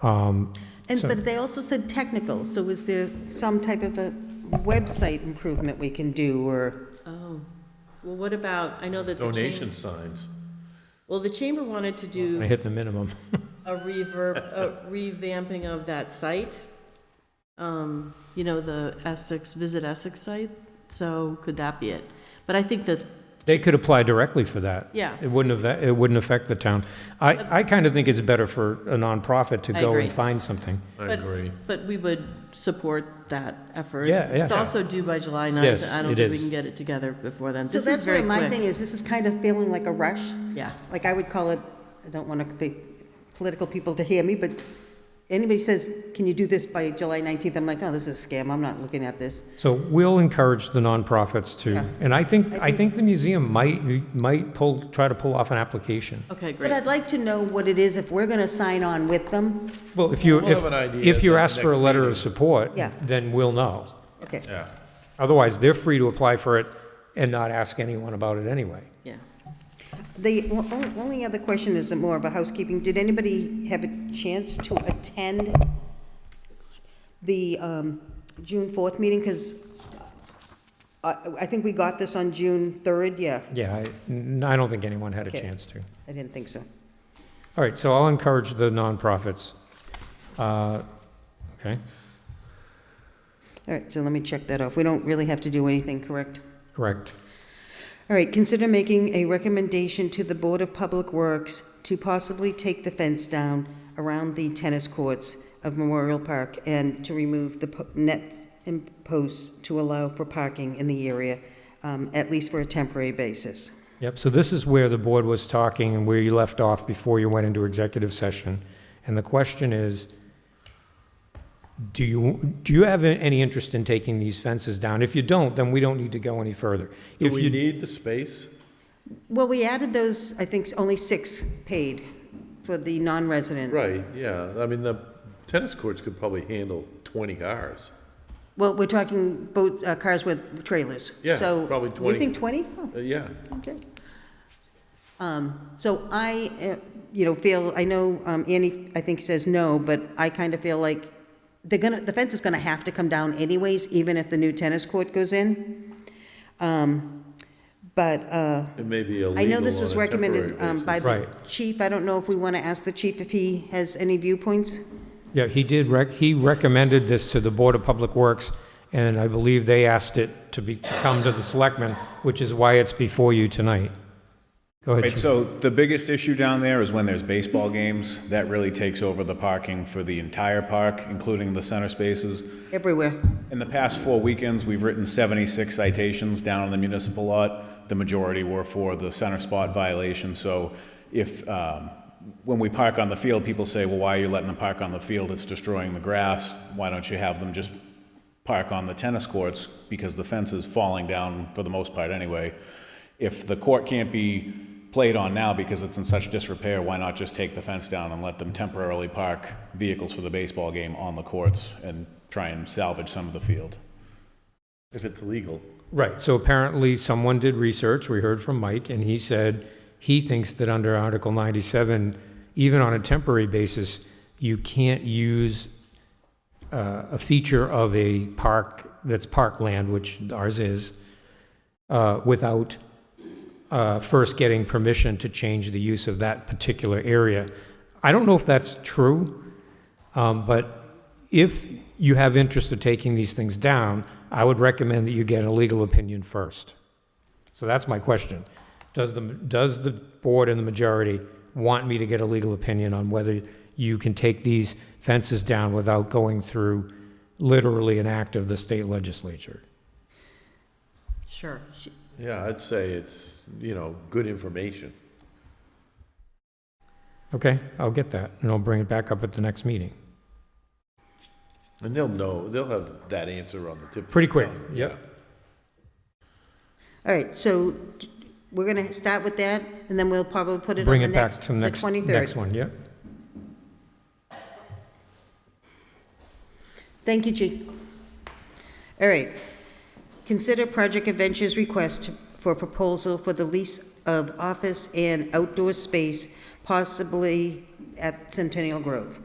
And, So- but they also said technical, so is there some type of a website improvement we can do, or? Oh, well, what about, I know that the chamber. Donation signs. Well, the chamber wanted to I do hit the minimum. a reverb, a revamping of that site. Um, You know, the Essex, Visit Essex site, so could that be it? But I think that, They could apply directly for that. Yeah. It wouldn't have, it wouldn't affect the town. I, I kind of think it's better for a nonprofit to I go agree. and find something. I But- agree. but we would support that effort. Yeah, yeah. It's also due by July Yes, 9th. I don't it think we is. can get it together before then. So This is that's very where quick. my thing is, this is kind of feeling like a rush, Yeah, like I would call it, I don't want the political people to hear me, but anybody says, can you do this by July 19th? I'm like, oh, this is a scam, I'm not looking at this. So we'll encourage the nonprofits to, Yeah. and I think, I I think the museum might, might pull, try to pull off an application. okay, But great. I'd like to know what it is, if we're going to sign on with them, Well, if you, We'll have an if, idea if at you're the asked for a next letter of meeting. support, Yeah. then we'll know. okay. Yeah. Otherwise, they're free to apply for it and not ask anyone about it anyway. Yeah. The o- o- only other question is more of a housekeeping. Did anybody have a chance to attend the um, June 4th meeting? Because I I think we got this on June 3rd, yeah. Yeah, I, n- I don't think anyone had a Okay. chance to. I didn't think so. All right, so I'll encourage the nonprofits. Uh, Okay, All right, so let me check that off. We don't really have to do anything, correct? correct. All right, consider making a recommendation to the Board of Public Works to possibly take the fence down around the tennis courts of Memorial Park and to remove the po- nets and posts to allow for parking in the area, um, at least for a temporary basis. Yep, so this is where the board was talking and where you left off before you went into executive session. And the question is, do you, do you have any interest in taking these fences down? If you don't, then we don't need to go any further. Do If we you, need the space? Well, we added those, I think, only six paid for the non-resident. Right, yeah. I mean, the tennis courts could probably handle 20 cars. Well, we're talking both uh, cars with trailers. Yeah, So, probably You 20. think 20? Oh, Uh, Yeah. Okay. Um, So I, uh, you know, feel, I know um, Annie, I think, says no, but I kind of feel like they're gonna, the fence is gonna have to come down anyways, even if the new tennis court goes in. Um, But uh, It may be illegal I know this was on a temporary recommended um, by basis. the Right. chief. I don't know if we want to ask the chief if he has any viewpoints. yeah, he did rec, he recommended this to the Board of Public Works, and I believe they asked it to be, to come to the selectmen, which is why it's before you tonight. Go ahead, Right, Chief. so the biggest issue down there is when there's baseball games, that really takes over the parking for the entire park, including the center spaces. Everywhere. In the past four weekends, we've written 76 citations down on the municipal lot. The majority were for the center spot violation, so if, um, when we park on the field, people say, well, why are you letting them park on the field? It's destroying the grass. Why don't you have them just park on the tennis courts? Because the fence is falling down for the most part anyway. If the court can't be played on now because it's in such disrepair, why not just take the fence down and let them temporarily park vehicles for the baseball game on the courts and try and salvage some of the field? If it's legal. Right, so apparently someone did research, we heard from Mike, and he said he thinks that under Article 97, even on a temporary basis, you can't use uh, a feature of a park that's parkland, which ours is, uh, without uh, first getting permission to change the use of that particular area. I don't know if that's true, um, but if you have interest of taking these things down, I would recommend that you get a legal opinion first. So that's my question. Does the, does the board and the majority want me to get a legal opinion on whether you can take these fences down without going through literally an act of the state legislature? Sure. Yeah, I'd say it's, you know, good information. Okay, I'll get that, and I'll bring it back up at the next meeting. And they'll know, they'll have that answer on the tip. of Pretty their quick, tongue, yep. All right, so we're going to start with that, and then we'll probably put it on Bring the it back next, to the the next, 23rd. next one, yep. Thank you, Chief. All right. Consider Project Adventures request for proposal for the lease of office and outdoor space, possibly at Centennial Grove.